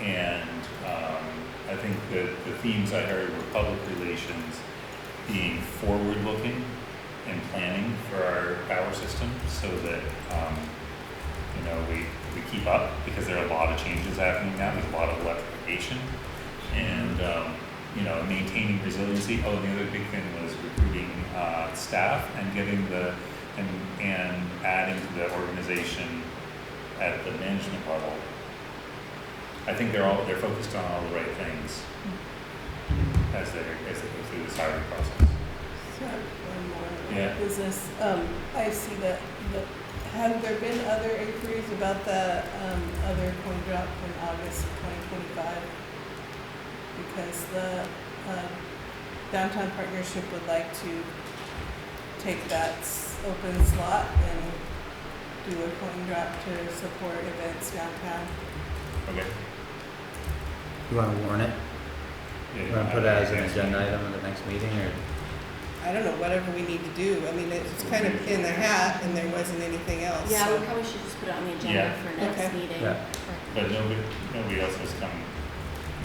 um, the, the themes I heard were public relations, being forward-looking and planning for our power system so that, um, you know, we, we keep up because there are a lot of changes happening now, there's a lot of electrification. And, um, you know, maintaining resiliency, oh, and the other big thing was recruiting, uh, staff and getting the, and, and adding to the organization at the management level. I think they're all, they're focused on all the right things as they, as they go through this hiring process. Sorry, one more Yeah. Business, um, I see that, that, have there been other inquiries about the, um, other coin drop in August twenty twenty-five? Because the, um, downtown partnership would like to take that s- open slot and do a coin drop to support events downtown. Okay? You wanna warn it? Yeah, You wanna I- put it as an I- agenda item at the next meeting or? I don't know, whatever we need to do, I mean, it's kind of in the hat and there wasn't anything else, so. Yeah, we probably should just put it on the agenda Yeah. for Okay. next meeting. Yeah. But nobody, nobody else has come.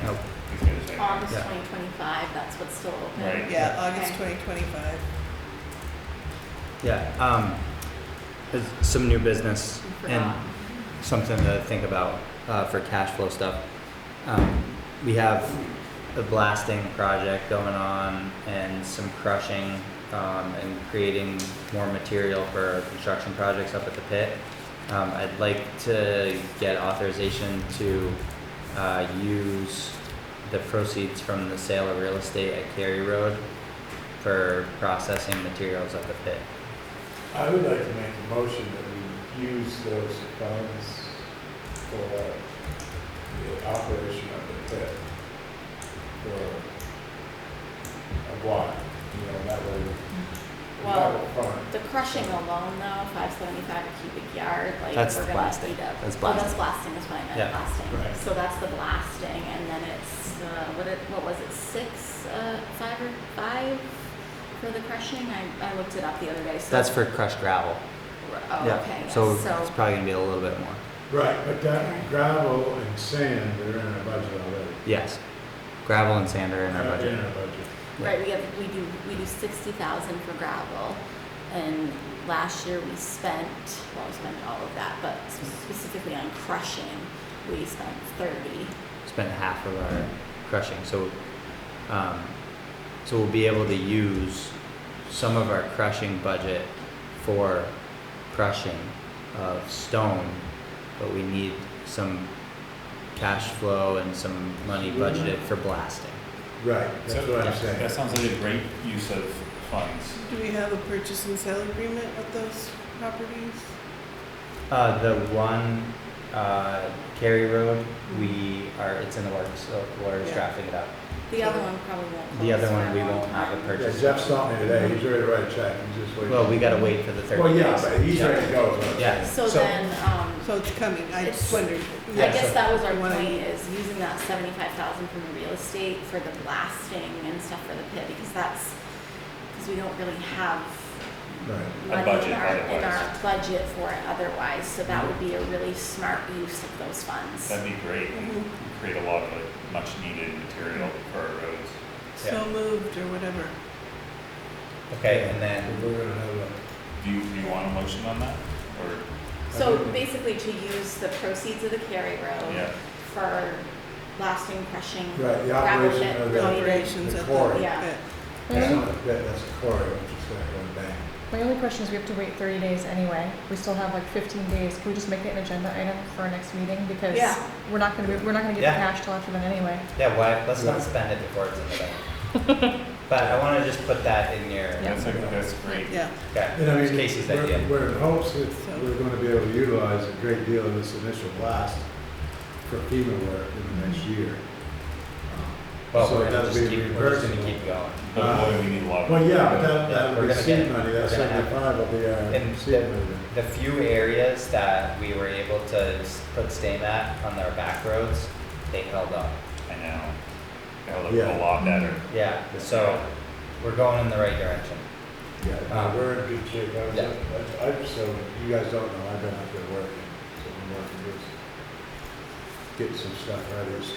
Nope. He's gonna say. August Yeah. twenty twenty-five, that's what's still open. Right. Yeah, August Okay. twenty twenty-five. Yeah, um, there's some new business We and forgot. something to think about, uh, for cash flow stuff. Um, we have a blasting project going on and some crushing, um, and creating more material for construction projects up at the pit. Um, I'd like to get authorization to, uh, use the proceeds from the sale of real estate at Cary Road for processing materials at the pit. I would like to make a motion that we use those funds for the operation of the pit for a while, you know, that way. we have a fund. The crushing alone though, five seventy-five a cubic yard, like That's we're gonna blasting. need up. That's Oh, that's blasting is what I Yeah, meant, blasting. right. So that's the blasting and then it's, uh, what it, what was it, six, uh, five or five for the crushing? I, I looked it up the other day, so. That's for crushed gravel. Oh, Yeah, okay, yes, So so. it's probably gonna be a little bit more. Right, but Okay. that gravel and sand, they're in our budget already. Yes. Gravel and sand are in our They're budget. In our budget. Yeah. Right, we have, we do, we do sixty thousand for gravel, and last year we spent, well, we spent all of that, but specifically on crushing, we spent thirty. Spent half of our crushing, so, um, so we'll be able to use some of our crushing budget for crushing of stone, but we need some cash flow and some money budgeted for blasting. Right, that's what I'm So, That saying. sounds like a great use of funds. Do we have a purchase and sale agreement with those properties? Uh, the one, uh, Cary Road, we are, it's in the works, so we're Yeah. drafting it up. The other one probably won't. The other close one for we long won't have a time. purchase. Yeah, Jeff saw me today, he's ready to write a check, he's just waiting. Well, we gotta wait for the third. Well, yeah, but he's ready to go. is what I'm saying. Yeah. So then, um, So it's coming, I just It's- wondered. I Yeah, guess so- that was our You wanna- point, is using that seventy-five thousand from the real estate for the blasting and stuff for the pit, because that's, because we don't really have Right. A money budget in our, in our otherwise. budget for it otherwise, so that would be a really smart use of those funds. That'd be great. Mhm. Create a lot of like, much needed material for our roads. So moved or whatever. Okay, and So then, We're gonna have a. Do you, do you want a motion on that? Or, So basically to use the proceeds of the carry yeah, road for blasting, crushing, Right, the gravel operation pit of the- related. Operations the at quarry. the Yeah. pit. My That's only, not a bit, that's a quarry, which is not going back. my only question is we have to wait thirty days anyway. We still have like fifteen days. Can we just make it an agenda item for our next meeting? Because Yeah. we're not gonna, be- we're not gonna get Yeah. the cash till after then anyway. yeah, why, let's Yeah. not spend it before it's in the bank. But I wanna just put that in your, Yeah. that's, a- that's great. Yeah, okay, And I it's mean, Casey's we're- idea. We're in hopes that So- we're gonna be able to utilize a great deal of this initial blast for FEMA work in the next year. Well, so we're gonna that'll just be keep, we're just gonna reversible. keep going. But boy, we need a lot of. Well, yeah, Yeah, but that, that we're would be gonna seed get- money, that we're gonna have- seventy-five will be our And seed the, money. the few areas that we were able to s- put stain at on our back roads, they held up. I know. That'll look Yeah. a lot better. Yeah, so we're going in the right direction. Yeah, Um, no, we're in good shape. I was, yeah. I- I, so you guys don't know, I've been out there working, so I'm working this. Getting some stuff ready, it's